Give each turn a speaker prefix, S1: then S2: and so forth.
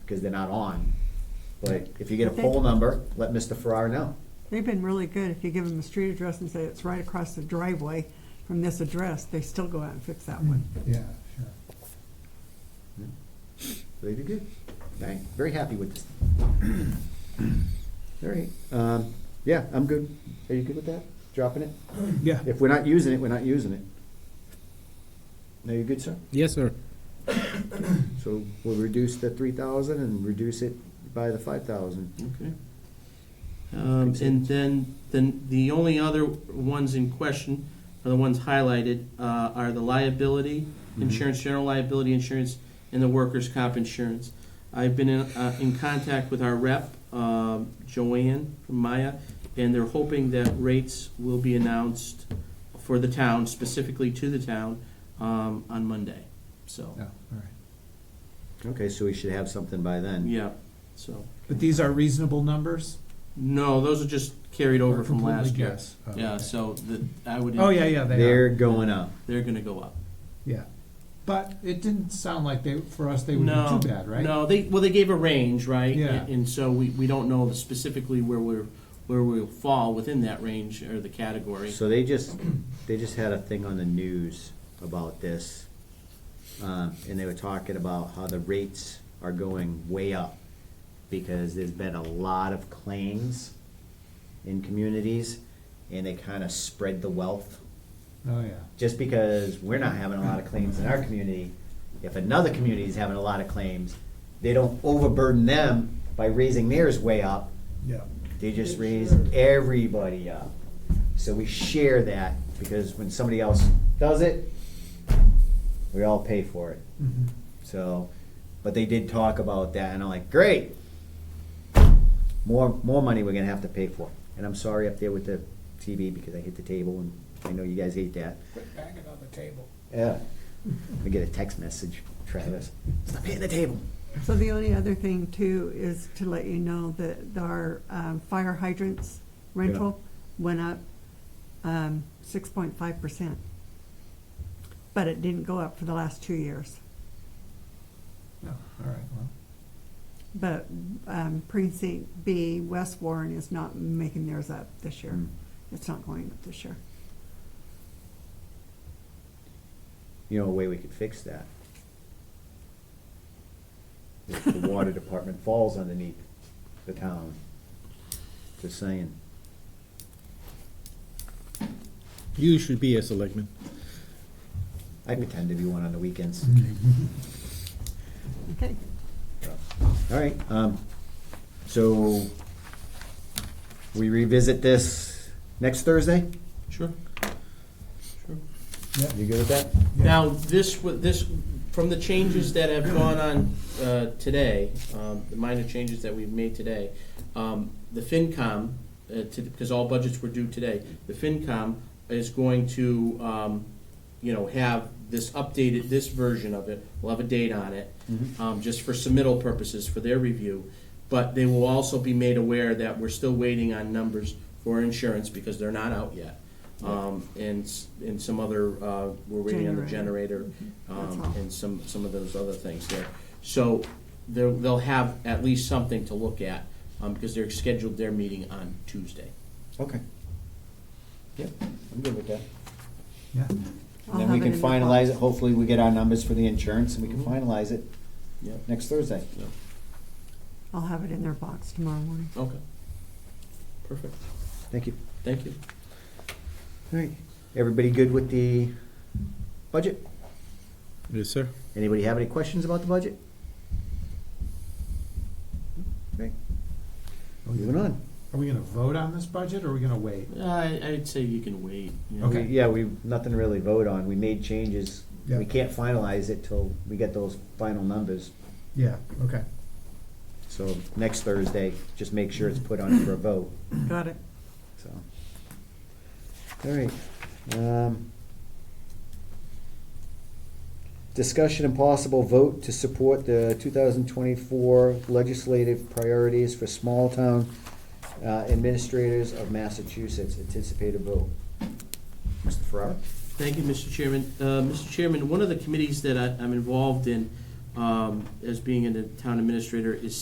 S1: because they're not on. But if you get a
S2: Okay.
S1: poll number, let Mr. Farrar know.
S2: They've been really good. If you give them a street address and say it's right across the driveway from this address, they still go out and fix that one.
S3: Yeah, sure.
S1: They did good. Okay, very happy with this. All right, um, yeah, I'm good. Are you good with that? Dropping it?
S4: Yeah.
S1: If we're not using it, we're not using it. No, you're good, sir?
S4: Yes, sir.
S1: So we'll reduce the three thousand and reduce it by the five thousand.
S5: Okay. Um, and then, then the only other ones in question are the ones highlighted, uh, are the liability insurance, general liability insurance, and the workers' comp insurance. I've been in, uh, in contact with our rep, um, Joanne from Maya, and they're hoping that rates will be announced for the town, specifically to the town, um, on Monday, so,
S3: Yeah, all right.
S1: Okay, so we should have something by then.
S5: yeah, so.
S4: But these are reasonable numbers?
S5: No, those are just carried over
S3: Or
S5: from
S3: completely
S5: last year.
S3: guess. Oh,
S5: Yeah,
S3: okay.
S5: so the, I would.
S4: Oh, yeah, yeah, they
S1: They're
S4: are.
S1: going up.
S5: They're gonna go up.
S3: Yeah. But it didn't sound like they, for us, they would
S5: No.
S3: be too bad, right?
S5: No, they, well, they gave a range, right?
S3: Yeah.
S5: And so we, we don't know specifically where we're, where we'll fall within that range or the category.
S1: So they just, they just had a thing on the news about this. Um, and they were talking about how the rates are going way up because there's been a lot of claims in communities and they kind of spread the wealth.
S3: Oh, yeah.
S1: Just because we're not having a lot of claims in our community, if another community is having a lot of claims, they don't overburden them by raising theirs way up.
S3: Yeah.
S1: They just raise everybody up. So we share that because when somebody else does it, we all pay for it.
S3: Mhm.
S1: So, but they did talk about that and I'm like, great. More, more money we're gonna have to pay for. And I'm sorry up there with the TV because I hit the table and I know you guys hate that.
S3: Put back it on the table.
S1: Yeah. I get a text message, Travis, stop hitting the table.
S2: So the only other thing too is to let you know that our um, fire hydrants rental went up um, six point five percent. But it didn't go up for the last two years.
S3: No, Oh, all right, well,
S2: But um, precinct B, West Warren is not making theirs up this year.
S1: Mm.
S2: It's not going up this year.
S1: you know, a way we could fix that. If the water department falls underneath the town, just saying.
S4: You should be a selectman.
S1: I pretend to be one on the weekends.
S2: Okay.
S1: All right, um, so we revisit this next Thursday?
S5: Sure. Sure.
S1: You good with that?
S5: Now, this, wa- this, from the changes that have gone on uh, today, um, the minor changes that we've made today, um, the FinCom, because all budgets were due today, the FinCom is going to, um, you know, have this updated, this version of it, we'll have a date on it, um, just for submittal purposes, for their review. But they will also be made aware that we're still waiting on numbers for insurance, because they're not out yet. Um, And, s- and some other, uh, we're waiting on the
S2: Generator.
S5: generator,
S2: That's
S5: um,
S2: all.
S5: and some, some of those other things there. So they'll, they'll have at least something to look at, um, because they're scheduled their meeting on Tuesday.
S1: Okay. Yep, I'm good with that.
S3: yeah.
S2: I'll
S1: Then we
S2: have it
S1: can
S2: in the
S1: finalize
S2: box.
S1: it, hopefully we get our numbers for the insurance and we can finalize it
S5: Yeah.
S1: next Thursday.
S2: I'll have it in their box tomorrow morning.
S5: Okay. Perfect.
S1: Thank you.
S5: Thank you.
S1: All right, everybody good with the budget?
S4: Yes, sir.
S1: Anybody have any questions about the budget? Okay,
S3: Are we-
S1: moving on.
S3: Are we gonna vote on this budget, or are we gonna wait?
S5: I, I'd say you can wait. you know.
S3: Okay.
S1: Yeah, we, nothing to really vote on. We made changes.
S3: Yeah.
S1: We can't finalize it till we get those final numbers.
S3: Yeah, okay.
S1: So next Thursday, just make sure it's put on for a vote,
S2: Got it.
S1: so. All right. um, Discussion and possible vote to support the two thousand twenty-four legislative priorities for small-town uh, administrators of Massachusetts. Anticipated vote. Mr. Farrar?
S5: Thank you, Mr. Chairman. Uh, Mr. Chairman, one of the committees that I, I'm involved in, um, as being in the town administrator is